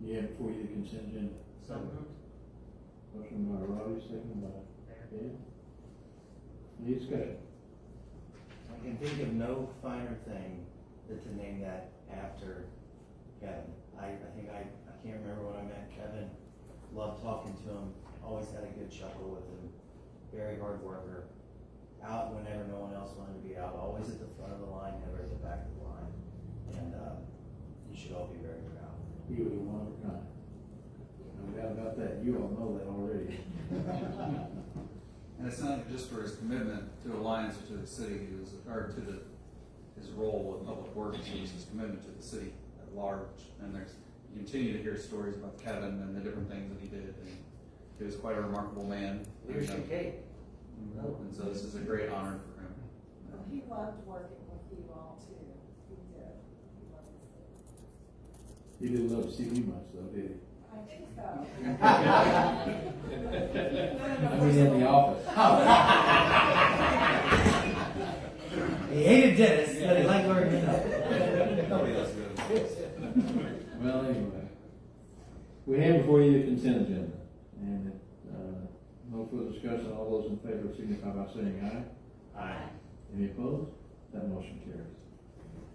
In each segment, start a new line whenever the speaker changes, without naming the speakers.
Yeah, before you consent agenda.
So moved.
Motion by Robbie, second by Dan. Any discussion?
I can think of no finer thing than to name that after Kevin. I, I think I, I can't remember when I met Kevin, loved talking to him, always had a good chuckle with him, very hard worker. Out whenever no one else wanted to be out, always at the front of the line, never at the back of the line. And, uh, you should all be very proud.
You were the one of a kind. No doubt about that, you all know that already.
And it's not just for his commitment to Alliance or to the city, he was, or to the, his role with Public Works, it was his commitment to the city at large. And there's, you continue to hear stories about Kevin and the different things that he did, and he was quite a remarkable man.
Here's your cake.
And so this is a great honor for him.
He loved working with you all too. He
He
did. He loved it.
didn't love to see me much though, did
I think so.
he? I mean, in the office.
He hated Dennis, but he liked learning enough.
Nobody else goes.
Well, anyway, we have before you the consent agenda, and, uh, no further discussion, all those in favor signify by saying aye.
Aye.
Any opposed? That motion carries.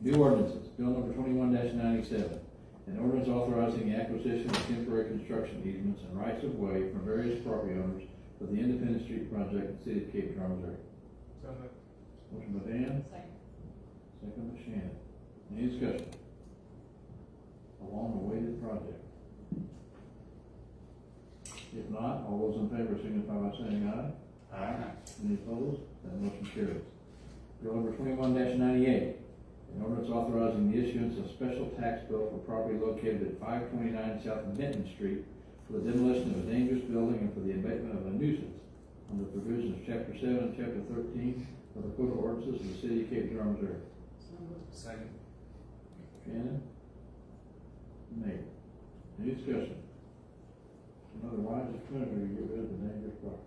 New ordinances, bill number twenty-one ninety-seven. An ordinance authorizing the acquisition of temporary construction easements and rights of way from various property owners for the Independence Street project in the city of Cape Girardeau, Missouri.
So moved.
Motion by Dan,
Second.
second by Shannon. Any discussion? A long-awaited project. If not, all those in favor signify by saying aye.
Aye.
Any opposed? That motion carries. Bill number twenty-one ninety-eight, an ordinance authorizing the issuance of special tax bill for property located at five twenty-nine South Benton Street for the demolition of a dangerous building and for the abatement of a nuisance under provisions of chapter seven and chapter thirteen of the Code of Ordinances of the City of Cape Girardeau, Missouri.
Second.
Shannon? Nate? Any discussion? Another wise determination to get rid of the dangerous property.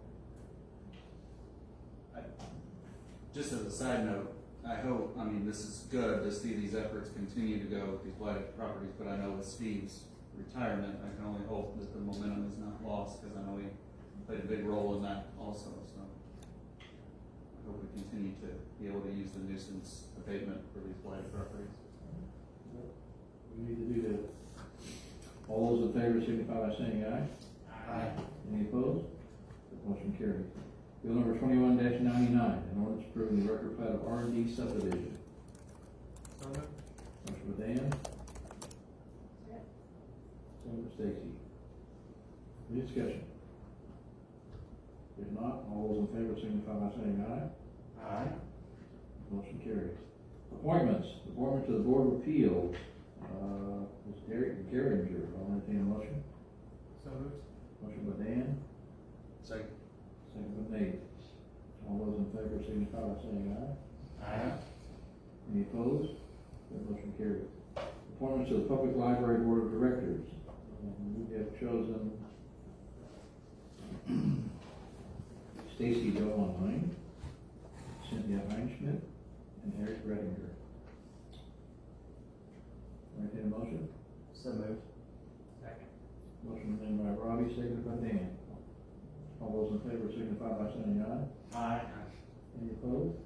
Just as a side note, I hope, I mean, this is good to see these efforts continue to go with these blighted properties, but I know with Steve's retirement, I can only hope that the momentum is not lost, because I know he played a big role in that also, so. I hope we continue to be able to use the nuisance abatement for these blighted properties.
We need to do that. All those in favor signify by saying aye.
Aye.
Any opposed? That motion carries. Bill number twenty-one ninety-nine, an ordinance approving the record plat of R and D subdivision.
So moved.
Motion by Dan,
Second.
second by Stacy. Any discussion? If not, all those in favor signify by saying aye.
Aye.
Motion carries. Appointments, appointment to the Board of Appeals, uh, is Derek Geringer, I'll entertain a motion.
So moved.
Motion by Dan,
Second.
Second by Nate. All those in favor signify by saying aye.
Aye.
Any opposed? That motion carries. Appointments to the Public Library Board of Directors. And We have chosen Stacy Doe online, Cynthia Heinschmidt, and Eric Redinger. Entertain a motion?
So moved.
Second.
Motion made by Robbie, seconded by Dan. All those in favor signify by saying aye.
Aye.
Any opposed?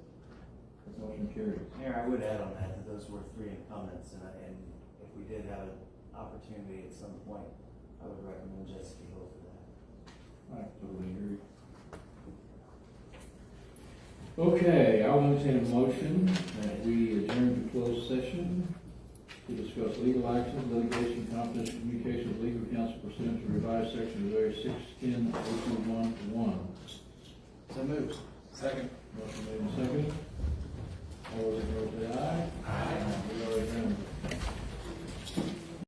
That motion carries.
Mayor, I would add on that, that those were three incumbents, and, I- and if we did have an opportunity at some point, I would recommend Jessica Hill for that.
I totally agree. Okay, I'll entertain a motion that we adjourn to closed session to discuss legal action, litigation, confidential communication with legal counsel pursuant to revised section of Missouri six ten oh two one one.
So moved.
Second.
Motion made and seconded. All those in favor say aye. Aye. We are adjourned.